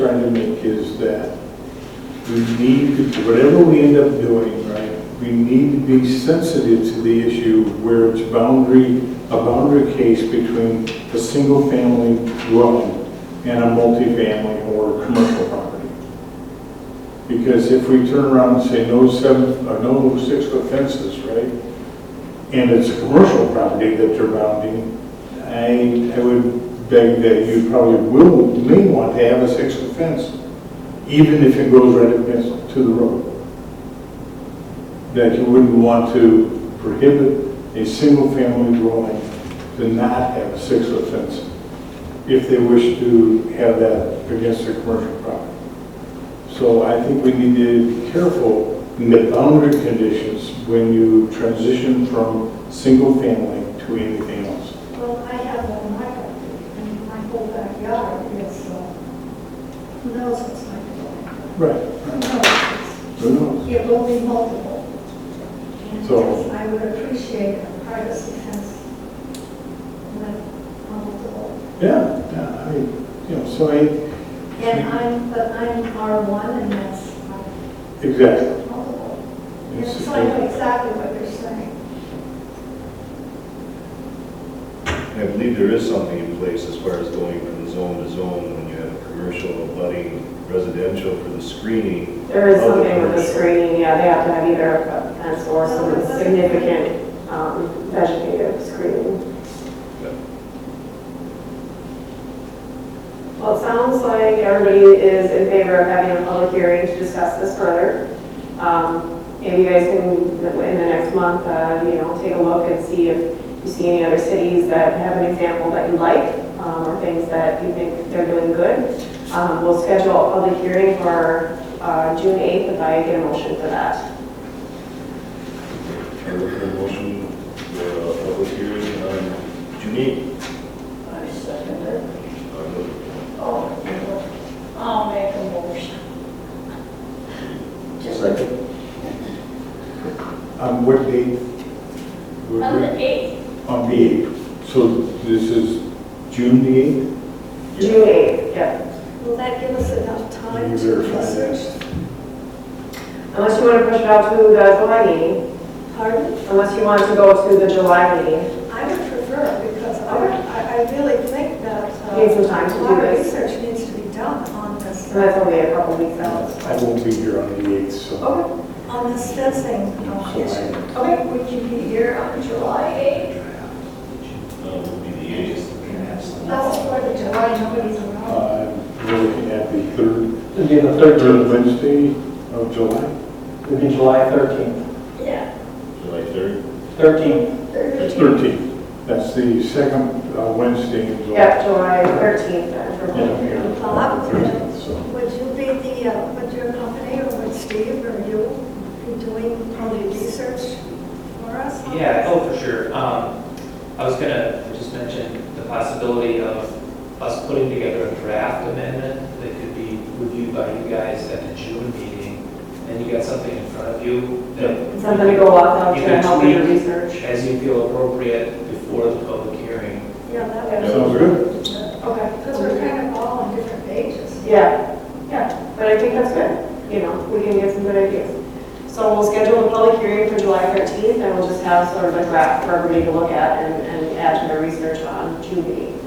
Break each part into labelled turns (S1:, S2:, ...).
S1: trying to make is that we need, to- whatever we end up doing, right, we need to be sensitive to the issue where it's boundary, a boundary case between a single-family dwelling and a multifamily or commercial property. Because if we turn around and say no seven, uh, no six-foot fences, right, and it's a commercial property that you're bounding, I, I would beg that you probably will, may want to have a six-foot fence, even if it goes right against to the road. That you wouldn't want to prohibit a single-family dwelling to not have a six-foot fence if they wish to have that against their commercial property. So I think we need to be careful in the boundary conditions when you transition from single family to anything else.
S2: Well, I have one in my property, and my whole backyard is, uh, who knows what's going to go in.
S1: Right.
S2: Who knows?
S1: Who knows?
S2: It will be multiple. And
S1: So-
S2: yes, I would appreciate a privacy fence with multiple.
S1: Yeah, yeah, I mean, you know, so I,
S2: And I'm, but I'm R1 and that's uh,
S1: exactly.
S2: multiple. And
S1: It's-
S2: so I know exactly what you're saying.
S3: I believe there is something in place as far as going from zone to zone when you have a commercial abutting residential for the screening.
S4: There is
S3: of the
S4: something with the
S3: commercial.
S4: screening, yeah, they have to have either a fence or some significant um, vegetative screening.
S3: Yeah.
S4: Well, it sounds like everybody is in favor of having a public hearing to discuss this further. Um, Maybe you guys can, in the next month, uh, you know, take a look and see if you see any other cities that have an example that you like, um, or things that you think they're doing good. Um, We'll schedule a public hearing for uh, June 8th if I get a motion for that.
S3: Can I look at a motion for a public um, hearing on June eighth?
S5: I second it.
S3: Uh,
S5: Oh, I'll make a motion.
S3: Second.
S1: On what date? Would
S5: On
S1: we-
S5: the eighth,
S1: On the 8th. So this is June the 8th?
S4: June 8th, yeah.
S2: Will that give us enough
S5: Uh,
S1: Can
S2: time
S1: you
S2: to
S1: verify
S2: research?
S1: that?
S4: Unless you want to push it out to the July meeting,
S2: Pardon?
S4: unless you want to go to the July meeting.
S2: I would prefer, because I, I I really think that. uh,
S4: Need some time to
S2: a
S4: do
S2: lot of
S4: this.
S2: research needs to be done on this,
S4: And that's only a couple weeks out.
S1: Uh, I won't be here on the 8th, so.
S4: Okay,
S2: on this fencing uh,
S1: so
S2: issue.
S1: I-
S4: okay.
S5: would you be here on July eighth?
S3: Uh, will be the eighth.
S2: That's for the July, nobody's around.
S1: uh, We're looking at the 3rd,
S6: It'd be the
S1: 3rd
S6: 13th,
S1: Wednesday of July.
S6: it'd be July 13th.
S5: Yeah.
S3: July third.
S6: 13th,
S1: It's 13th. That's the second uh, Wednesday in July.
S4: Yeah, July 13th then for public hearing.
S1: Yeah, Thirteenth, so.
S2: Would you be the, uh, would your company or would Steve or you be doing probably research for us? on
S7: Yeah,
S2: this?
S7: oh, for sure. Um, I was gonna just mention the possibility of us putting together a draft amendment that could be reviewed by you guys at the June meeting, and you got something in front of you that.
S4: Something to go off of
S7: You
S4: to
S7: can
S4: help with your
S7: tweak
S4: research.
S7: As you feel appropriate before the public hearing.
S2: Yeah, that would.
S1: Sounds good.
S4: Okay.
S2: Because we're kind of all on different pages.
S4: Yeah, yeah, but I think that's good, you know, we can get some good ideas. So we'll schedule a public hearing for July 13th, and we'll just have sort of a draft for everybody to look at and, and add to their research on June meeting,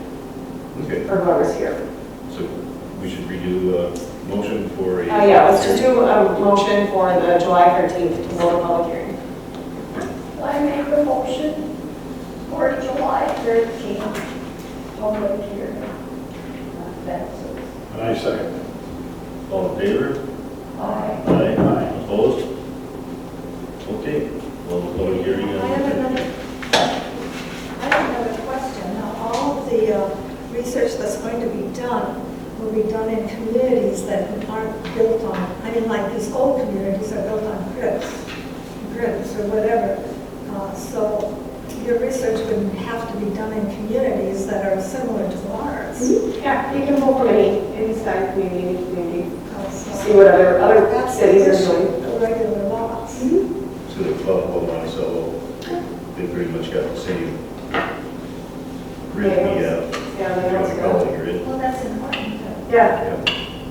S3: Okay,
S4: for whoever's here.
S3: so we should redo a motion for a.
S5: Oh,
S4: Uh, yeah, let's just do a motion for the July 13th to hold a public hearing.
S5: I make a motion for July thirteenth, public hearing. That's it.
S1: And I second.
S3: All in favor?
S5: Aye.
S3: Aye.
S1: Aye.
S3: Opposed? Okay, well, the public
S2: I
S3: hearing. on-
S2: have another, I have another question. Now, all of the uh, research that's going to be done will be done in communities that aren't built on, I mean, like these old communities are built on grids, grids or whatever. Uh, So your research would have to be done in communities that are similar to ours.
S4: Yeah, you can pull from any, any side community, community,
S2: Uh, so
S4: see what other, other
S2: that's the
S4: cities are
S2: issue,
S4: doing.
S2: The regular laws.
S3: So the club home on, so they pretty much got the same uh, grid we have,
S4: Yeah,
S3: if you
S4: they
S3: want to call
S4: also.
S3: it a grid.
S2: Well, that's important.
S4: Yeah,
S3: Yeah.